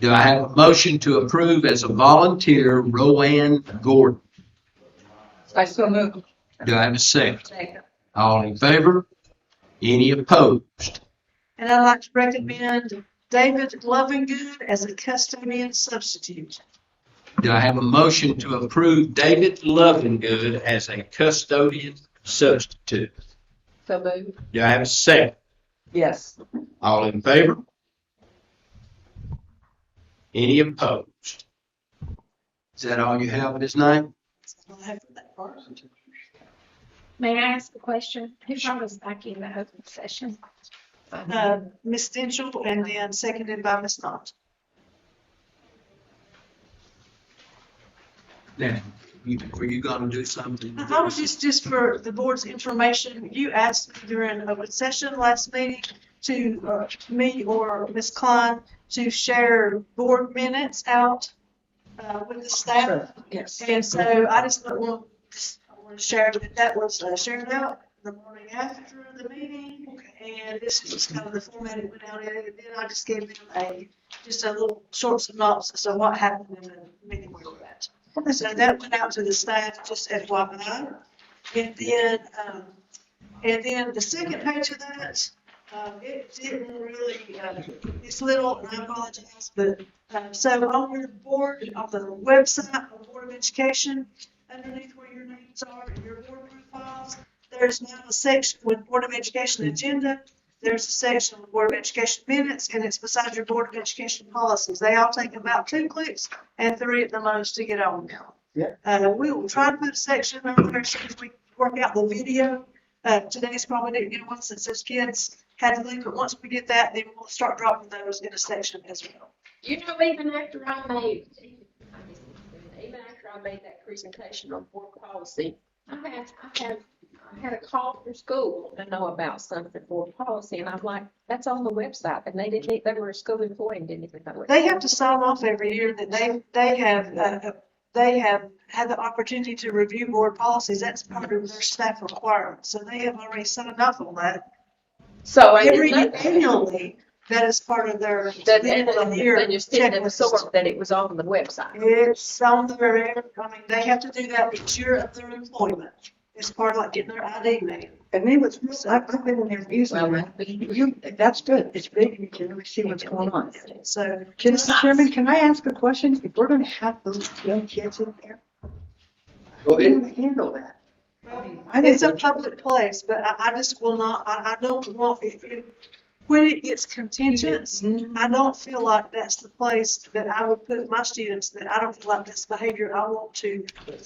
Do I have a motion to approve as a volunteer Rowan Gordon? I still move. Do I have a second? All in favor? Any opposed? And I'd like to recommend David Lovingood as a custodian substitute. Do I have a motion to approve David Lovingood as a custodian substitute? So move. Do I have a second? Yes. All in favor? Any opposed? Is that all you have with his name? I'll have that part. May I ask a question? Who brought us back in the open session? Uh, Ms. Denchel and then seconded by Ms. Knott. Now, you- were you gonna do something? I was just, just for the board's information, you asked me during open session last meeting to, uh, me or Ms. Klein to share board minutes out, uh, with the staff. Yes. And so I just want to share that that was uh, shared out the morning after the meeting. And this is just kind of the format it went out in. And then I just gave them a, just a little short synopsis of what happened in the meeting we were at. So that went out to the staff just at YMI. And then, um, and then the second page of that, um, it didn't really, uh, it's little, and I apologize, but uh, So on your board, on the website of Board of Education, underneath where your names are and your board profiles, there's now a section with Board of Education Agenda. There's a section with Board of Education Minutes, and it's beside your Board of Education Policies. They all take about two clicks and three at the most to get on now. Yeah. Uh, we will try to put a section on there as soon as we work out the video. Uh, today's probably didn't get one since those kids had to leave, but once we get that, then we'll start dropping those in a section as well. You know, even after I made, even after I made that presentation on board policy, I had, I had, I had a call from school to know about something board policy, and I'm like, that's on the website, and they didn't, they were a school employee and didn't even know it. They have to sign off every year that they, they have, uh, they have had the opportunity to review board policies. That's part of their staff requirement. So they have already signed up on that. So I Every didn't know year, that. annually, that is part of their. That, end and, of the and year and you're sitting in the checklist. store, that it was on the website. It's on their, I mean, they have to do that each year of their employment. It's part of like getting their ID made. And they was, I've I've been in there Well, using that'd it. be- You, that's good. It's big. You can really see what's going on. So. Can- Mr. Chairman, can I ask a question? If we're gonna have those young kids in there, Go how ahead. do we handle that? I think It's a so. public place, but I, I just will not, I, I don't want, if, if, when it gets contentious, I don't feel like that's the place that I would put my students, that I don't feel like that's behavior I want to,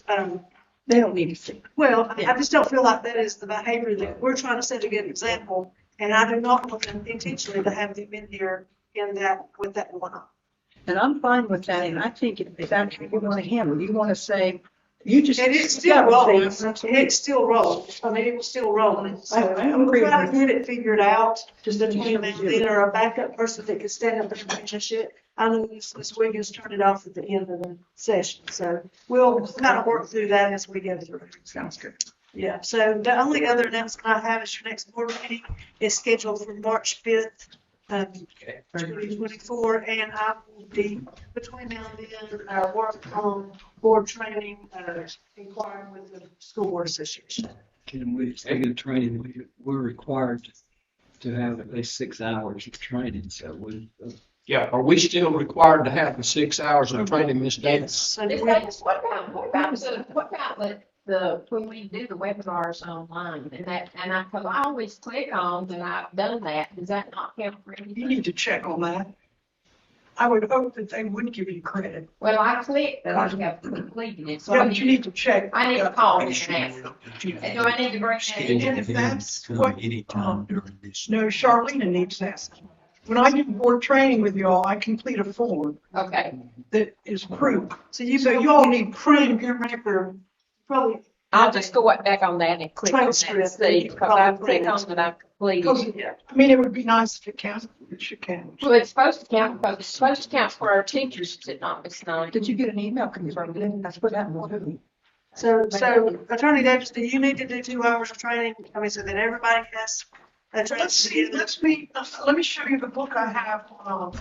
um, They don't need to see. well, I I just don't feel like that is the behavior that we're trying to set a good example, and I do not want them intentionally to have them in here in that, with that one. And I'm fine with that. And I think if if that's what you wanna handle, you wanna say, you just. And it's you still gotta rolling, say something. it's still rolling, I mean, it was still rolling, so. I- I agree with Try to you. get it figured out. Just the that you team and do it. then or a backup person that can stand up and finish shit. I know Ms. Ms. Wiggins turned it off at the end of the session, so we'll kind of work through that as we go through. Sounds good. Yeah, so the only other announcement I have is your next board meeting is scheduled for March fifth, um, twenty twenty-four, and I will be, between now and then, uh, work on board training, uh, inquiring with the school board association. Can we, speaking of training, we, we're required to have at least six hours of training, so we. Yeah, are we still required to have the six hours of training, Ms. Davis? So It's we'll- like, What about, what about, the- what about the, the, when we do the webinars online and that, and I, 'cause I always click on that I've done that, does that not count for You anything? need to check on that. I would hope that they would give you credit. Well, I clicked that I have completed it, so Yeah, I but you need, need to check. I need to call them and ask them. Do I need to bring that in? And if that's what, um, during this. No, Charlene needs that. When I do board training with y'all, I complete a form Okay, that is proof. So you, So you y'all all need need proof, your record, probably I'll just go right back on that and click on that and Transcript. see, because I clicked on that I completed. Because, I mean, it would be nice if it counted, it should count. Well, it's supposed to count, because it's supposed to count for our teachers, is it not, Miss Nine? Did you get an email confirming it? That's what happened. So, so Attorney Davis, do you need to do two hours of training? I mean, so that everybody has a Let's uh, see, training. let's me, let me show you the book I have, um,